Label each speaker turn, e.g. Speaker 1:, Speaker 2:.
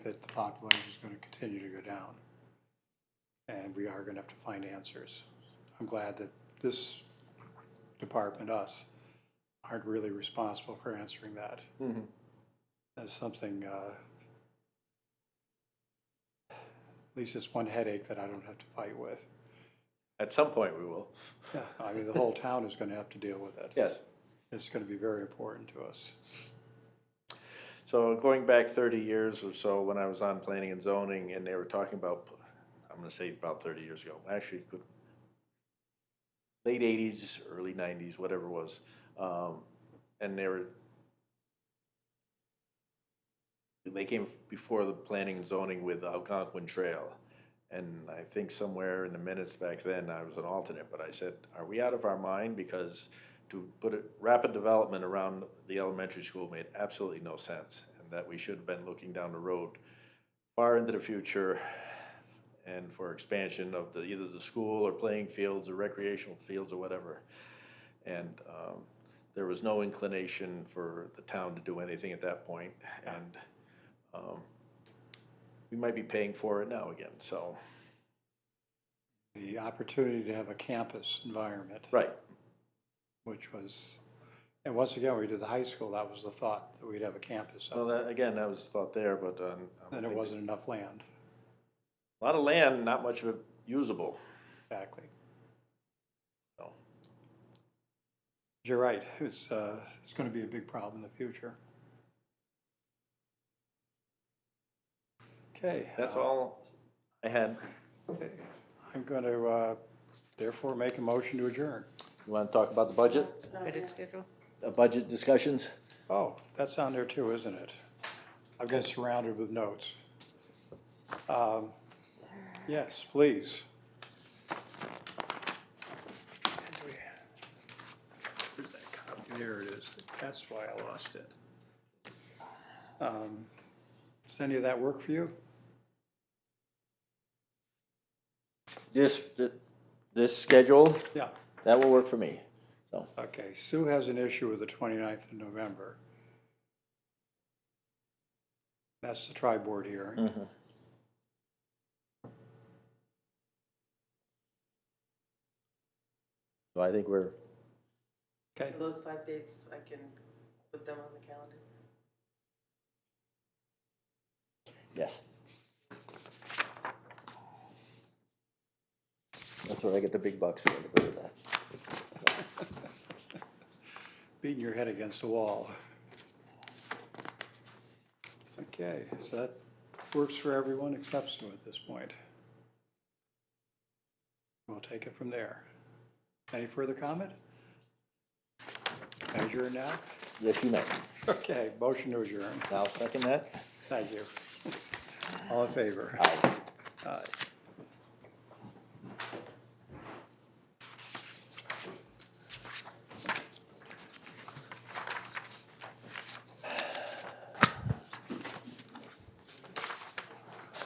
Speaker 1: that the population is gonna continue to go down. And we are gonna have to find answers. I'm glad that this department, us, aren't really responsible for answering that.
Speaker 2: Mhm.
Speaker 1: That's something, uh, at least it's one headache that I don't have to fight with.
Speaker 2: At some point, we will.
Speaker 1: I mean, the whole town is gonna have to deal with it.
Speaker 2: Yes.
Speaker 1: It's gonna be very important to us.
Speaker 2: So going back thirty years or so, when I was on planning and zoning, and they were talking about, I'm gonna say about thirty years ago, actually, it could- late eighties, early nineties, whatever it was, um, and they were they came before the planning and zoning with Algonquin Trail. And I think somewhere in the minutes back then, I was an alternate, but I said, are we out of our mind? Because to put it, rapid development around the elementary school made absolutely no sense. And that we should have been looking down the road far into the future and for expansion of the, either the school or playing fields or recreational fields or whatever. And, um, there was no inclination for the town to do anything at that point. And, um, we might be paying for it now again, so.
Speaker 1: The opportunity to have a campus environment.
Speaker 2: Right.
Speaker 1: which was, and once again, we did the high school, that was the thought, that we'd have a campus. up
Speaker 2: Well, that, again, that was thought there, but, um. I don't
Speaker 1: Then it
Speaker 2: think-
Speaker 1: wasn't enough land,
Speaker 2: A lot of land, not much of it usable.
Speaker 1: exactly.
Speaker 2: No.
Speaker 1: You're right, it's, uh, it's gonna be a big problem in the future. Okay.
Speaker 2: That's
Speaker 1: uh,
Speaker 2: all I had.
Speaker 1: okay. I'm gonna, uh, therefore make a motion to adjourn.
Speaker 2: You want to talk about the budget,
Speaker 3: Edit schedule?
Speaker 2: uh, budget discussions?
Speaker 1: Oh, that's on there too, isn't it? I've got surrounded with notes. Um, Yes, please. Where's that copy? There it is. That's why I lost it. Um, Does any of that work for you?
Speaker 2: This, this schedule,
Speaker 1: Yeah.
Speaker 2: that will work for me, so.
Speaker 1: Okay, Sue has an issue with the 29th of November. That's the tri-board hearing.
Speaker 2: So I think we're,
Speaker 1: Okay,
Speaker 3: Those five dates, I can put them on the calendar.
Speaker 2: yes. That's where I get the big bucks for to go to that.
Speaker 1: beating your head against the wall. Okay, so that works for everyone except Sue at this point. We'll take it from there. Any further comment? Adjourn now?
Speaker 2: Yes, you may.
Speaker 1: Okay, motion to adjourn.
Speaker 2: Now, second that?
Speaker 1: Thank you. All in favor?
Speaker 2: Aye.
Speaker 1: Aye.